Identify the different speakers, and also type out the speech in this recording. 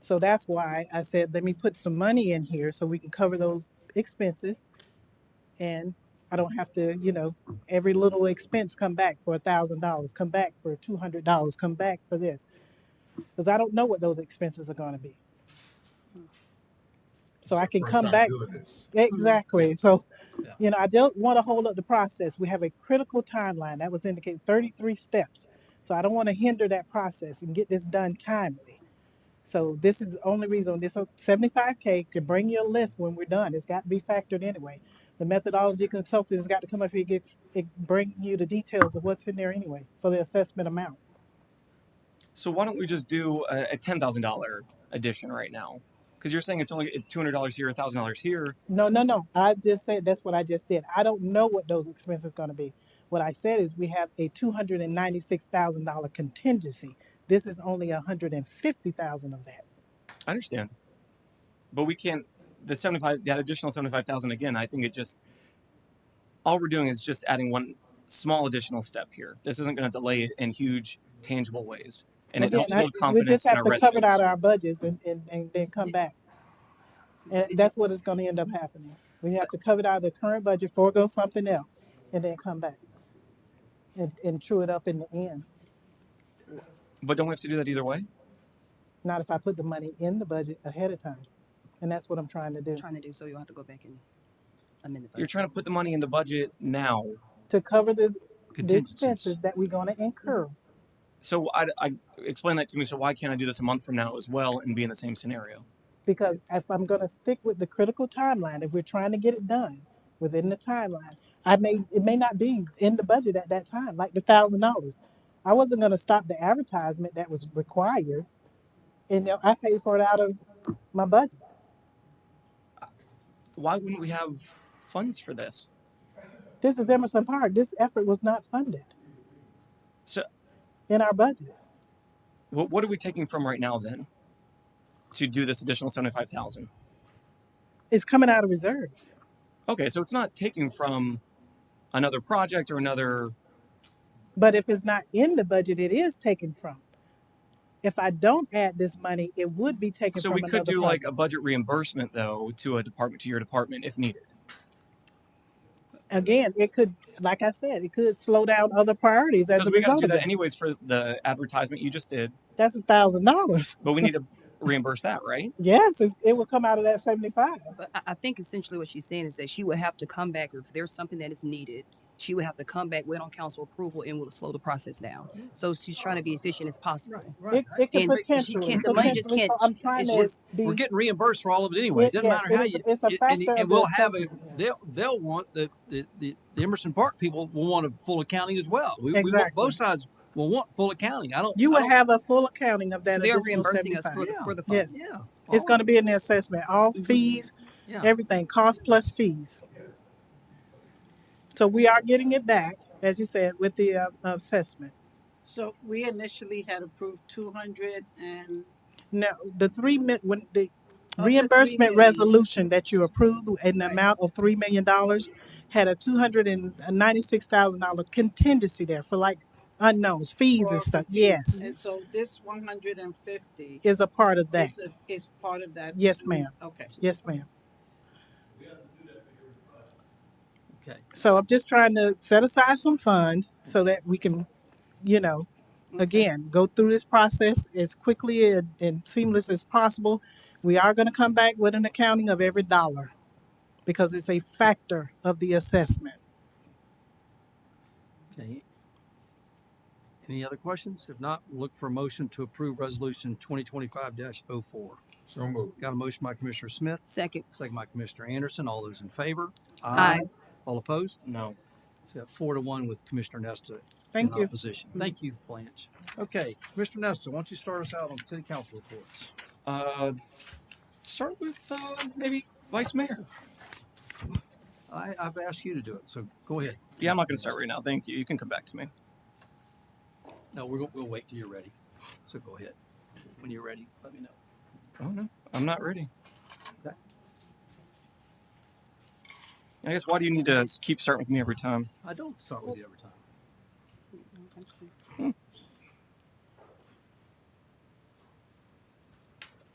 Speaker 1: So that's why I said, let me put some money in here so we can cover those expenses. And I don't have to, you know, every little expense come back for a thousand dollars, come back for two hundred dollars, come back for this. Because I don't know what those expenses are gonna be. So I can
Speaker 2: First
Speaker 1: come
Speaker 2: time
Speaker 1: back
Speaker 2: doing this.
Speaker 1: Exactly. So,
Speaker 2: Yeah.
Speaker 1: you know, I don't want to hold up the process. We have a critical timeline that was indicated 33 steps. So I don't want to hinder that process and get this done timely. So this is the only reason this 75K can bring you a list when we're done. It's got to be factored anyway. The methodology consultant has got to come up here and get, it bring you the details of what's in there anyway for the assessment amount.
Speaker 3: So why don't we just do a, a ten thousand dollar addition right now? Because you're saying it's only two hundred dollars here, thousand dollars here.
Speaker 1: No, no, no. I just said that's what I just did. I don't know what those expenses going to be. What I said is we have a two hundred and ninety-six thousand dollar contingency. This is only a hundred and fifty thousand of that.
Speaker 3: I understand, but we can't. The seventy five, that additional seventy five thousand again. I think it just all we're doing is just adding one small additional step here. This isn't going to delay it in huge, tangible ways, and it
Speaker 1: Again,
Speaker 3: helps
Speaker 1: I,
Speaker 3: build
Speaker 1: we just
Speaker 3: confidence in
Speaker 1: have
Speaker 3: our
Speaker 1: to cover it
Speaker 3: residents.
Speaker 1: out of our budgets and, and, and then come back. And that's what is going to end up happening. We have to cover it out of the current budget, forego something else, and then come back and, and true it up in the end.
Speaker 3: But don't we have to do that either way?
Speaker 1: Not if I put the money in the budget ahead of time. And that's what I'm trying to do.
Speaker 4: trying to do, so you'll have to go back and amend the
Speaker 3: You're
Speaker 4: budget.
Speaker 3: trying to put the money in the budget now.
Speaker 1: To cover the, the
Speaker 5: contingencies.
Speaker 1: expenses that we're going to incur.
Speaker 3: So I, I explain that to me. So why can't I do this a month from now as well and be in the same scenario?
Speaker 1: Because if I'm gonna stick with the critical timeline, if we're trying to get it done within the timeline, I may, it may not be in the budget at that time, like the thousand dollars. I wasn't gonna stop the advertisement that was required, and you know, I paid for it out of my budget.
Speaker 3: Why wouldn't we have funds for this?
Speaker 1: This is Emerson Park, this effort was not funded
Speaker 3: So
Speaker 1: in our budget.
Speaker 3: what, what are we taking from right now then to do this additional 75,000?
Speaker 1: It's coming out of reserves.
Speaker 3: Okay, so it's not taking from another project or another
Speaker 1: But if it's not in the budget, it is taken from. If I don't add this money, it would be taken
Speaker 3: so we
Speaker 1: from
Speaker 3: could
Speaker 1: another
Speaker 3: do like
Speaker 1: project.
Speaker 3: a budget reimbursement though to a department to your department if needed.
Speaker 1: again, it could, like I said, it could slow down other priorities as
Speaker 3: Because
Speaker 1: a
Speaker 3: we got to
Speaker 1: result
Speaker 3: do
Speaker 1: of
Speaker 3: that
Speaker 1: that.
Speaker 3: anyways for the advertisement you just did,
Speaker 1: That's a thousand dollars.
Speaker 3: but we need to reimburse that, right?
Speaker 1: Yes, it, it would come out of that seventy-five.
Speaker 4: But I, I think essentially what she's saying is that she would have to come back if there's something that is needed. She would have to come back, wait on council approval, and will slow the process down. So she's trying to be efficient as possible.
Speaker 1: It, it could
Speaker 4: And she
Speaker 1: potentially,
Speaker 4: can't, the money just
Speaker 1: potentially,
Speaker 4: can't,
Speaker 1: co- I'm trying
Speaker 4: it's
Speaker 1: to
Speaker 4: just,
Speaker 1: be,
Speaker 5: We're getting reimbursed for all of it anyway. It
Speaker 1: it,
Speaker 5: doesn't
Speaker 1: yes,
Speaker 5: matter
Speaker 1: it
Speaker 5: how
Speaker 1: is,
Speaker 5: you,
Speaker 1: it's a
Speaker 5: it- and,
Speaker 1: factor
Speaker 5: and
Speaker 1: of the
Speaker 5: we'll have a,
Speaker 1: assessment. yes.
Speaker 5: they'll, they'll want, the, the, the the Emerson Park people will want a full accounting as well. We, we want,
Speaker 1: Exactly.
Speaker 5: both sides will want full accounting. I don't,
Speaker 1: You
Speaker 5: I
Speaker 1: will
Speaker 5: don't,
Speaker 1: have a full accounting of that
Speaker 4: they're
Speaker 1: additional
Speaker 4: reimbursing us for
Speaker 1: seventy-five.
Speaker 4: the,
Speaker 5: yeah,
Speaker 4: for the funds.
Speaker 1: Yes,
Speaker 5: yeah.
Speaker 1: it's
Speaker 5: all
Speaker 1: gonna
Speaker 5: of
Speaker 1: be in the assessment, all
Speaker 5: it.
Speaker 1: fees,
Speaker 5: Yeah.
Speaker 1: everything, cost plus fees. So we are getting it back, as you said, with the uh, assessment.
Speaker 6: So we initially had approved two hundred and
Speaker 1: No, the three mi- when the
Speaker 6: Of the three
Speaker 1: reimbursement
Speaker 6: million.
Speaker 1: resolution that you approved in the
Speaker 6: Right.
Speaker 1: amount of three million dollars had a two hundred and ninety-six thousand dollar contingency there for like unknowns, fees
Speaker 6: for
Speaker 1: and
Speaker 6: the
Speaker 1: stuff.
Speaker 6: fee.
Speaker 1: Yes,
Speaker 6: And so this one hundred and fifty
Speaker 1: is a part of that.
Speaker 6: is, a- is part of that?
Speaker 1: Yes, ma'am.
Speaker 6: Okay.
Speaker 1: Yes, ma'am.
Speaker 5: Okay.
Speaker 1: So I'm just trying to set aside some funds so that we can, you know,
Speaker 6: Okay.
Speaker 1: again, go through this process as quickly and, and seamless as possible. We are gonna come back with an accounting of every dollar. because it's a factor of the assessment.
Speaker 5: Okay. Any other questions? If not, we'll look for a motion to approve resolution twenty twenty-five 4
Speaker 2: So moved.
Speaker 5: Got a motion by Commissioner Smith,
Speaker 4: Second,
Speaker 5: second by Commissioner Anderson. All those in favor?
Speaker 4: Aye.
Speaker 5: All opposed?
Speaker 3: No.
Speaker 5: So got four to one with Commissioner Nesta
Speaker 1: Thank
Speaker 5: in
Speaker 1: you.
Speaker 5: opposition. Thank you, Blanche. Okay, Commissioner Nesta, why don't you start us out on city council reports?
Speaker 3: Uh, start with uh, maybe vice mayor.
Speaker 5: I, I've asked you to do it, so go ahead.
Speaker 3: Yeah, I'm not going
Speaker 5: Commissioner
Speaker 3: to start
Speaker 5: Nesta.
Speaker 3: right now. Thank you. You can come back to me.
Speaker 5: No, we're, gonna- we'll wait till you're ready. So go ahead. When you're ready, let me know.
Speaker 3: Oh no, I'm not ready.
Speaker 5: Okay.
Speaker 3: I guess why do you need to s- keep starting with me every time?
Speaker 5: I don't start with you every time.
Speaker 4: I